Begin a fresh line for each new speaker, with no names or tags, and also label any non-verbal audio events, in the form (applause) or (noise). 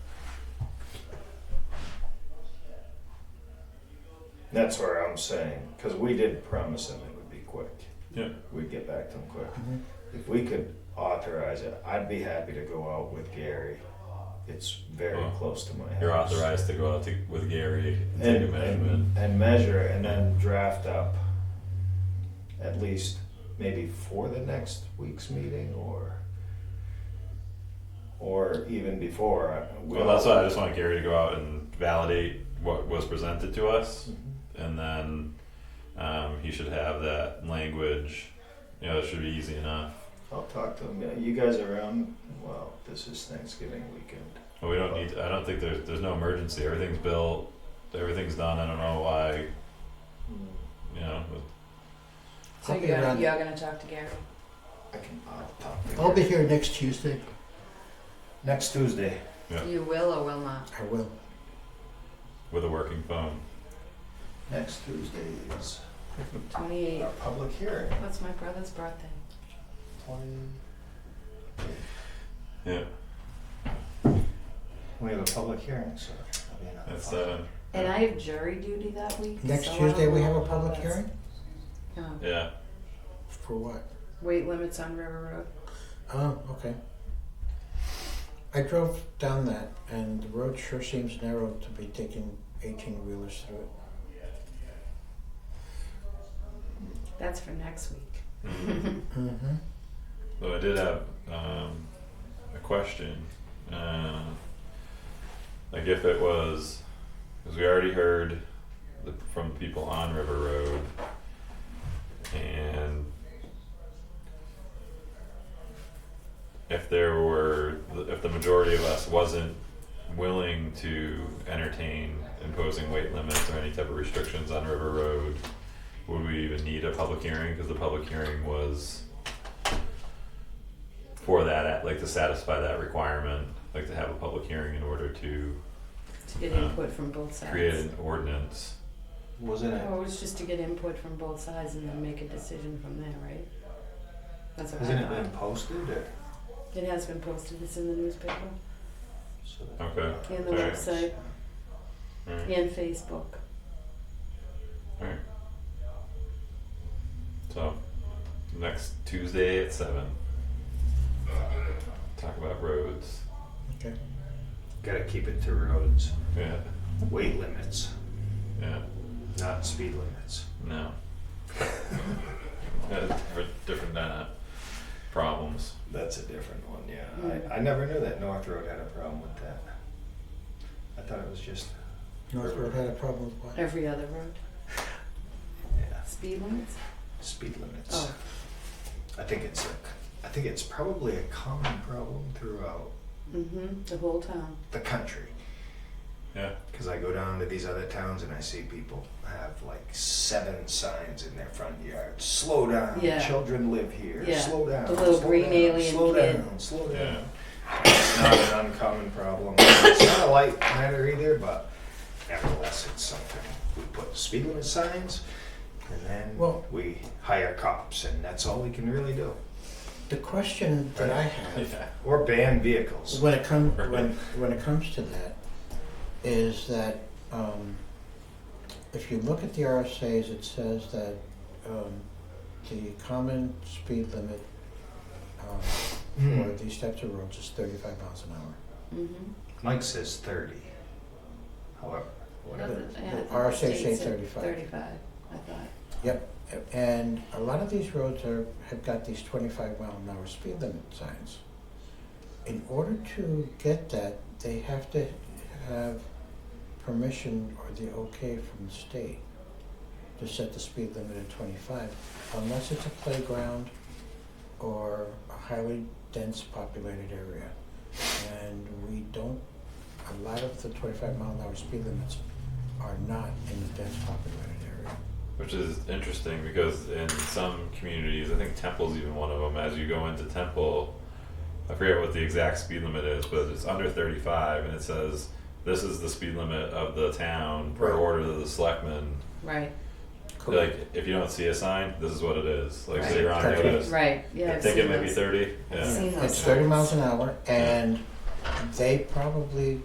That's where I'm saying, because we did promise them it would be quick.
Yeah.
We'd get back to them quick. If we could authorize it, I'd be happy to go out with Gary. It's very
Oh.
close to my house.
You're authorized to go out to, with Gary and take a
And,
measurement.
and, and measure and then draft up at least maybe for the next week's meeting or or even before. I- we
Well, that's
all-
why I just want Gary to go out and validate what was presented to us,
Mm-hmm.
and then um, he should have that language. You know, it should be easy enough.
I'll talk to him. You guys are around? Well, this is Thanksgiving weekend.
But we don't need. I don't think there's there's no emergency. Everything's built. Everything's done. I don't know why. You know.
So
I'll
you
be
gotta,
around.
you are gonna talk to Gary.
I can, I'll talk to
I'll be
Gary.
here next Tuesday.
Next Tuesday.
Yeah.
You will or will not.
I will.
With a working phone.
Next Tuesday is
Twenty eight.
our public hearing.
What's my brother's birthday?
Yeah,
We have a public hearing, so that'll be another.
that's
fun.
seven.
And I have jury duty that week.
Next
so I don't
Tuesday, we
know
have a
if
public
that's-
hearing?
No.
Yeah, (laughs)
For what?
Weight limits on River Road.
Oh, okay. I drove down that and the road sure seems narrow to be taking eighteen wheelers through it.
That's for next week.
Mm-hmm.
Though I did have um, a question. Uh, like if it was, because we already heard the, from people on River Road, and if there were, if the majority of us wasn't willing to entertain imposing weight limits or any type of restrictions on River Road, would we even need a public hearing? Because the public hearing was for that, like to satisfy that requirement, like to have a public hearing in order to
To get
Yeah.
input from both sides.
create an ordinance.
Wasn't it,
Well, it was just to get input from both sides and then make a decision from there, right? That's what
hasn't
I
it been
thought.
posted or?
It has been posted, it's in the newspaper
so that-
Okay.
and the
Alright.
website
Alright,
and Facebook.
alright. So, next Tuesday at seven. Talk about roads.
Okay.
Gotta keep it to roads.
Yeah,
Weight limits,
yeah,
not speed limits.
no. (laughs) Yeah, different- Different, uh, problems.
That's a different one, yeah.
Mm.
I, I never knew that North Road had a problem with that. I thought it was just,
North Road had a problem with what?
Every other road.
yeah,
Speed limits?
speed limits.
Oh,
I think it's a, I think it's probably a common problem throughout
mm-hmm, the whole town.
the country.
Yeah.
Because I go down to these other towns and I see people have like seven signs in their front yard. Slow down.
Yeah.
Children live here.
Yeah.
Slow down.
The little
slow
green
down,
alien
slow
kid.
down. Slow down.
Yeah.
It's not an uncommon problem. It's not a light matter either, but nevertheless, it's something. We put speed limit signs and then
Well-
we hire cops, and that's all we can really do.
The question that I have
Yeah,
Or ban vehicles.
when it comes when when it comes to that is that um, if you look at the RSA's, it says that um, the common speed limit um,
Hmm.
for these types of roads is 35 miles an hour.
Mm-hmm.
Mike says 30. However, whatever.
the RSA say 35.
Thirty-five, I thought.
Yep, and a lot of these roads are have got these 25 mile an hour speed limit signs. In order to get that, they have to have permission or the okay from the state to set the speed limit at 25, unless it's a playground or a highly dense populated area. And we don't, a lot of the 25 mile an hour speed limits are not in the dense populated area.
Which is interesting because in some communities, I think Temple's even one of them. As you go into Temple, I forget what the exact speed limit is, but it's under 35, and it says this is the speed limit of the town per
Right.
order of the selectmen.
Right,
Like, if you don't see a sign, this is what it is. Like, so you're on
Right.
notice.
right, yeah,
I
I've
think
seen
it might be
those.
30.
I've
Yeah.
seen those
It's thirty
signs.
miles an hour, and they probably